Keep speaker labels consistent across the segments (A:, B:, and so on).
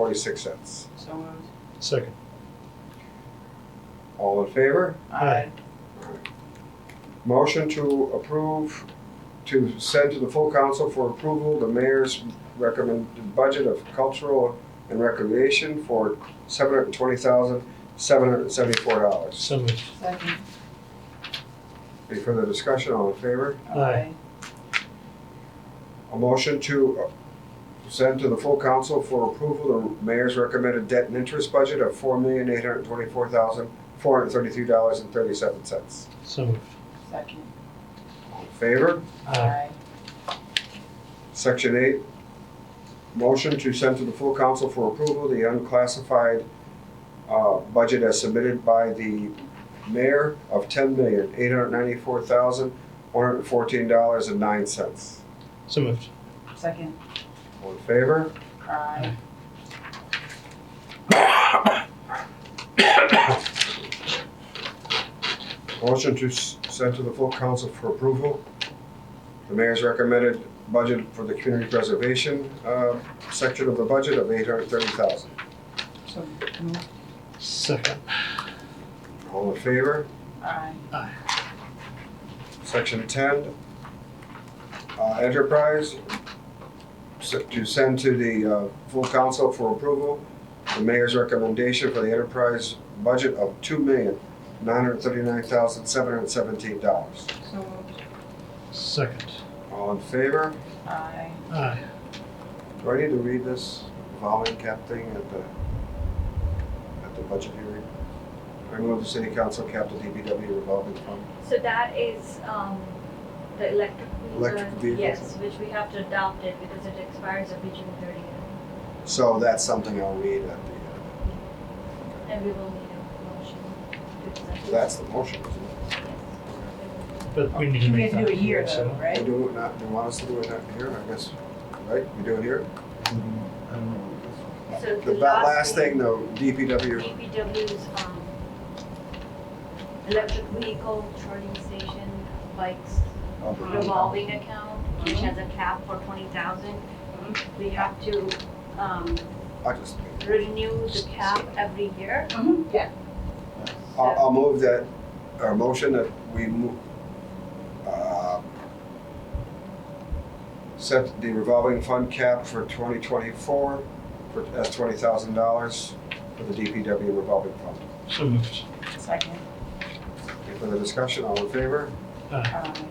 A: forty-six cents.
B: So moved.
C: Second.
A: All in favor?
C: Aye.
A: Motion to approve, to send to the full council for approval, the mayor's recommended budget of cultural and recreation for seven hundred and twenty thousand, seven hundred and seventy-four dollars.
C: So moved.
B: Second.
A: Any further discussion, all in favor?
C: Aye.
A: A motion to uh, send to the full council for approval, the mayor's recommended debt and interest budget of four million, eight hundred and twenty-four thousand, four hundred and thirty-three dollars and thirty-seven cents.
C: So moved.
B: Second.
A: All in favor?
C: Aye.
A: Section eight, motion to send to the full council for approval the unclassified uh, budget as submitted by the mayor of ten million, eight hundred ninety-four thousand, one hundred fourteen dollars and nine cents.
C: So moved.
B: Second.
A: All in favor?
B: Aye.
A: Motion to s- send to the full council for approval the mayor's recommended budget for the community preservation uh, section of the budget of eight hundred thirty thousand.
B: So moved.
C: Second.
A: All in favor?
B: Aye.
A: Section ten, uh, enterprise, s- to send to the, uh, full council for approval, the mayor's recommendation for the enterprise budget of two million, nine hundred thirty-nine thousand, seven hundred seventeen dollars.
B: So moved.
C: Second.
A: All in favor?
B: Aye.
C: Aye.
A: Do I need to read this volume cap thing at the, at the budget hearing? I move the city council cap to DPW revolving fund.
D: So that is um, the electric
A: Electric
D: vehicle,
A: vehicles.
D: yes, which we have to adopt it because it expires every June thirtieth,
A: So that's something I'll read at the, uh,
D: and we will need a motion to
A: uh,
D: accept
A: so
D: it.
A: that's the motion, isn't it?
D: Yes.
C: But we need to
B: You
C: make
B: can
C: that.
B: do a year
C: so-
B: though,
A: We
B: right?
A: do it not, they want us to do it not here, I guess, right? We do it here?
D: So
A: The ba- last thing, though, DPW,
D: DPW's um, electric vehicle charging station bikes
A: Mm-hmm.
D: revolving account, which has a cap for twenty thousand. We have to um,
A: I just,
D: renew the cap every year.
B: Mhm. Yeah.
A: I'll, I'll move that, our motion that we move, uh, set the revolving fund cap for twenty twenty-four for, as twenty thousand dollars for the DPW revolving fund.
C: So moved.
B: Second.
A: Any further discussion, all in favor?
C: Aye.
B: Aye.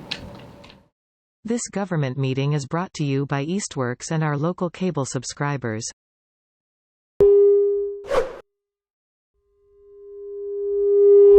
E: This government meeting is brought to you by Eastworks and our local cable subscribers.